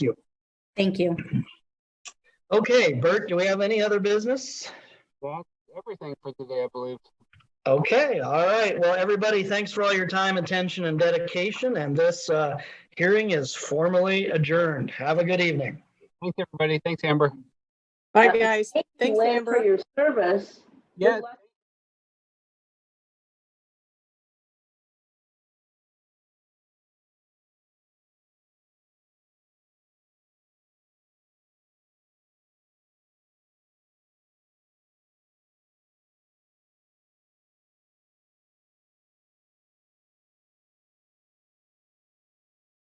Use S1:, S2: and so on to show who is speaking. S1: you.
S2: Thank you.
S1: Okay, Bert, do we have any other business?
S3: That's everything for today, I believe.
S1: Okay, all right. Well, everybody, thanks for all your time, attention, and dedication, and this uh, hearing is formally adjourned. Have a good evening.
S3: Thanks, everybody. Thanks, Amber.
S4: Bye,
S5: Yeah.
S4: guys.
S5: Thank you,
S4: Thanks,
S5: Lynn, for
S4: Amber.
S5: your service. Good
S3: Yeah,
S5: luck